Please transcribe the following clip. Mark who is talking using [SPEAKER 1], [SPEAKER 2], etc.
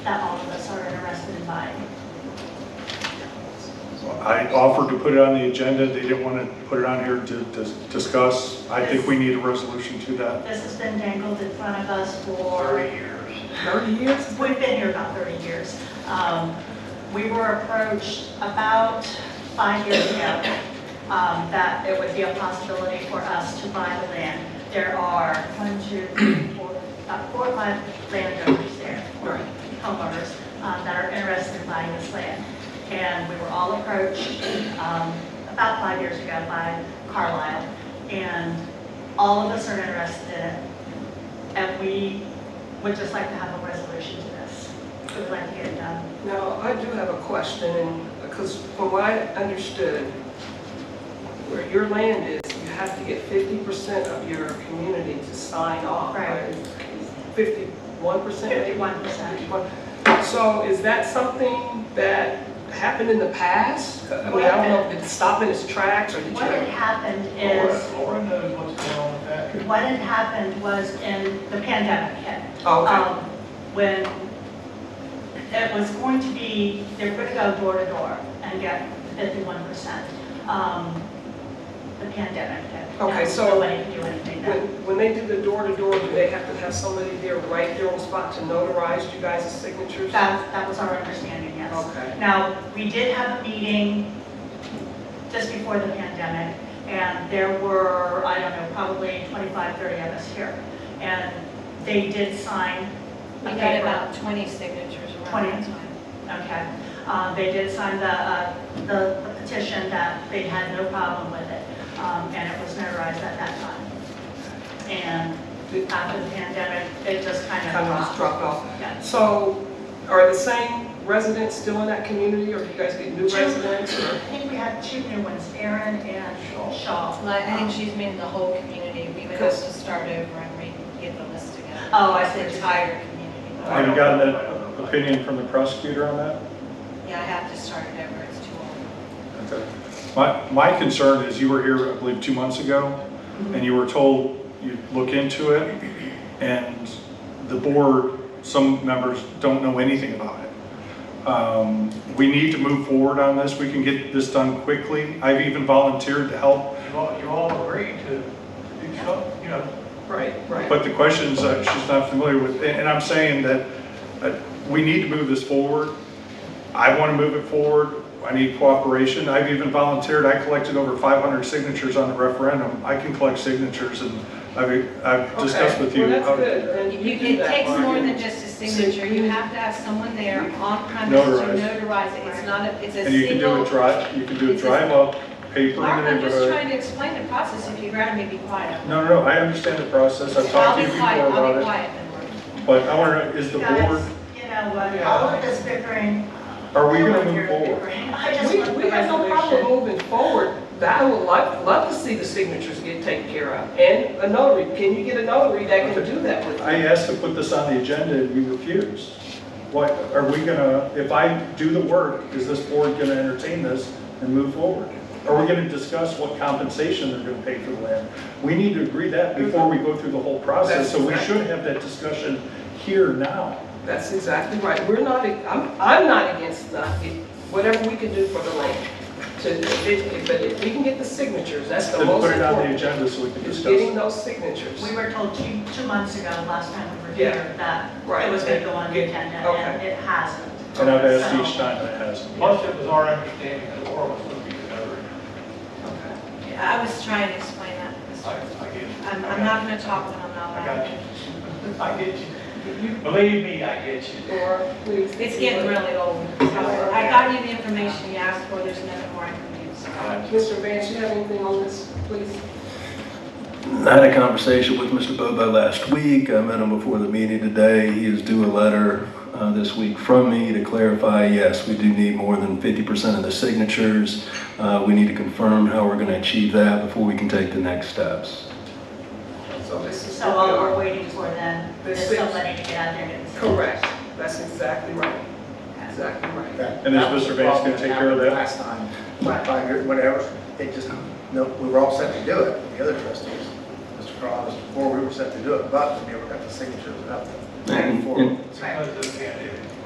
[SPEAKER 1] that all of us are interested in buying.
[SPEAKER 2] I offered to put it on the agenda, they didn't want to put it on here to to discuss. I think we need a resolution to that.
[SPEAKER 1] This has been dangled in front of us for,
[SPEAKER 3] 30 years.
[SPEAKER 2] 30 years?
[SPEAKER 1] we've been here about 30 years. Um, We were approached about five years ago um, that it would be a possibility for us to buy the land. There are one, two, three, four, about four, or five landowners there, or homeowners, um, that are interested in buying this land. And we were all approached um, about five years ago by Carlisle, and all of us are interested in it. And we would just like to have a resolution to this. We'd like to get it done.
[SPEAKER 4] Now, I do have a question, because from what I understood, where your land is, you have to get 50% of your community to sign off.
[SPEAKER 1] Right.
[SPEAKER 4] 51% maybe?
[SPEAKER 1] 51%.
[SPEAKER 4] 51. So is that something that happened in the past? I mean, I don't know if it stopped in its tracks or did you...
[SPEAKER 1] What had happened
[SPEAKER 3] Laura
[SPEAKER 1] is,
[SPEAKER 3] Laura knows what's going on with that.
[SPEAKER 1] what had happened was in the pandemic hit.
[SPEAKER 4] Oh, okay.
[SPEAKER 1] um, when it was going to be, they were going to go door to door and get fifty-one percent. um, The pandemic hit.
[SPEAKER 4] Okay,
[SPEAKER 1] and
[SPEAKER 4] so-
[SPEAKER 1] Nobody could do anything then.
[SPEAKER 4] When, when they did the door-to-door, do they have to have somebody there right there on the spot to notarize you guys' signatures?
[SPEAKER 1] That, that was our understanding, yes.
[SPEAKER 4] Okay.
[SPEAKER 1] Now, we did have a meeting just before the pandemic, and there were, I don't know, probably 25, 30 of us here. And they did sign a
[SPEAKER 5] We got
[SPEAKER 1] paper.
[SPEAKER 5] about 20 signatures
[SPEAKER 1] 20.
[SPEAKER 5] around that time.
[SPEAKER 1] Okay. Um, They did sign the, uh, the the petition that they had no problem with it, um, and it was notarized at that time. And after the pandemic, it just kind of
[SPEAKER 4] Kind of just
[SPEAKER 1] dropped.
[SPEAKER 4] dropped off.
[SPEAKER 1] Yeah.
[SPEAKER 4] So are the same residents still in that community, or do you guys get new
[SPEAKER 1] Two.
[SPEAKER 4] residents?
[SPEAKER 1] I
[SPEAKER 4] or-
[SPEAKER 1] think we had two new ones, Aaron and Shaw.
[SPEAKER 5] Like, I think she's meaning the whole community. We would have
[SPEAKER 4] Because-
[SPEAKER 5] to start over and re- get the list together.
[SPEAKER 1] Oh, I
[SPEAKER 5] It's the
[SPEAKER 1] see.
[SPEAKER 5] Entire community.
[SPEAKER 2] Have you gotten an opinion from the prosecutor on that?
[SPEAKER 5] Yeah, I have to start it over. It's too old.
[SPEAKER 2] Okay. My, my concern is you were here, I believe, two months ago, and you were told you'd look into it, and the board, some members don't know anything about it. Um, We need to move forward on this. We can get this done quickly. I've even volunteered to help,
[SPEAKER 3] You all, you all agreed to do something, you know,
[SPEAKER 4] Right, right.
[SPEAKER 2] but the questions uh, she's not familiar with, and and I'm saying that uh, we need to move this forward. I want to move it forward. I need cooperation. I've even volunteered. I collected over 500 signatures on the referendum. I can collect signatures and I've, I've discussed
[SPEAKER 4] Okay,
[SPEAKER 2] with you.
[SPEAKER 4] Well,
[SPEAKER 2] how
[SPEAKER 4] that's
[SPEAKER 2] to-
[SPEAKER 4] good, then you do
[SPEAKER 5] You- It
[SPEAKER 4] that.
[SPEAKER 5] takes
[SPEAKER 4] Mark.
[SPEAKER 5] more than just a signature. You have to have someone there on premise to
[SPEAKER 2] Notarized.
[SPEAKER 5] notarize it. It's not, a. it's a
[SPEAKER 2] And you can do
[SPEAKER 5] single.
[SPEAKER 2] it dry, you can do it
[SPEAKER 5] It's a-
[SPEAKER 2] drive up, paper in
[SPEAKER 5] Mark,
[SPEAKER 2] the
[SPEAKER 5] I'm just
[SPEAKER 2] neighborhood.
[SPEAKER 5] trying to explain the process. If you'd rather me be quiet.
[SPEAKER 2] No, no, no, I understand the process. I've
[SPEAKER 5] I'll
[SPEAKER 2] talked to
[SPEAKER 5] be
[SPEAKER 2] you before
[SPEAKER 5] quiet. I'll be
[SPEAKER 2] about
[SPEAKER 5] quiet then. Mark.
[SPEAKER 2] it. But I want to, is the board,
[SPEAKER 1] Guys, you know what, all of this bickering.
[SPEAKER 2] Are we gonna
[SPEAKER 1] all of
[SPEAKER 2] move
[SPEAKER 1] your
[SPEAKER 2] forward?
[SPEAKER 1] bickering, I just want
[SPEAKER 4] We,
[SPEAKER 1] the
[SPEAKER 4] we have no problem
[SPEAKER 1] resolution.
[SPEAKER 4] moving forward, but I would like, love to see the signatures get taken care of, and a notary, can you get a notary that can
[SPEAKER 2] Okay.
[SPEAKER 4] do that with
[SPEAKER 2] I
[SPEAKER 4] you?
[SPEAKER 2] asked to put this on the agenda and you refused. What, are we gonna, if I do the work, is this board gonna entertain this and move forward? Are we gonna discuss what compensation they're gonna pay for the land? We need to agree that before we go through the whole process, so we should have that discussion here now.
[SPEAKER 4] That's exactly right, we're not, I'm, I'm not against nothing, whatever we can do for the land, to, if, but if we can get the signatures, that's the
[SPEAKER 2] Then
[SPEAKER 4] most
[SPEAKER 2] put it on the
[SPEAKER 4] important.
[SPEAKER 2] agenda so we can
[SPEAKER 4] It's
[SPEAKER 2] discuss.
[SPEAKER 4] getting
[SPEAKER 2] it.
[SPEAKER 4] those signatures.
[SPEAKER 1] We were told two, two months ago, last time we were
[SPEAKER 4] Yeah.
[SPEAKER 1] here, that
[SPEAKER 4] Right.
[SPEAKER 1] it was going to go on the
[SPEAKER 4] Good.
[SPEAKER 1] agenda, and
[SPEAKER 4] Okay.
[SPEAKER 1] it hasn't.
[SPEAKER 2] And I've asked each time and it hasn't.
[SPEAKER 3] plus it was our understanding that Laura was going to be the notary.
[SPEAKER 4] Okay.
[SPEAKER 5] I was trying to explain that.
[SPEAKER 3] I, I get you.
[SPEAKER 5] I'm, I'm not going to talk when I'm not
[SPEAKER 3] I
[SPEAKER 5] allowed.
[SPEAKER 3] got you. I get you. Believe me, I get you.
[SPEAKER 4] Laura, please.
[SPEAKER 5] It's getting really old. So I got you the information you asked for, there's nothing more I can do. so.
[SPEAKER 4] Mr. Vance, you have anything on this, please?
[SPEAKER 6] I had a conversation with Mr. Bobo last week. I met him before the meeting today. He is due a letter uh, this week from me to clarify, yes, we do need more than 50% of the signatures. Uh, We need to confirm how we're going to achieve that before we can take the next steps.
[SPEAKER 4] So this is.
[SPEAKER 1] So all we're waiting for then
[SPEAKER 4] The
[SPEAKER 1] is
[SPEAKER 4] six.
[SPEAKER 1] somebody to get out there and.
[SPEAKER 4] Correct, that's exactly right, exactly right.
[SPEAKER 2] And is Mr. Banks gonna take care of that?
[SPEAKER 7] Last time, my five years, whatever, it just, no, we were all set to do it, the other trustees, Mr. Carl, Mr. Ford, we were set to do it, but we never got the signatures enough.
[SPEAKER 6] And-
[SPEAKER 7] Before.
[SPEAKER 6] and-
[SPEAKER 3] Because of the pandemic.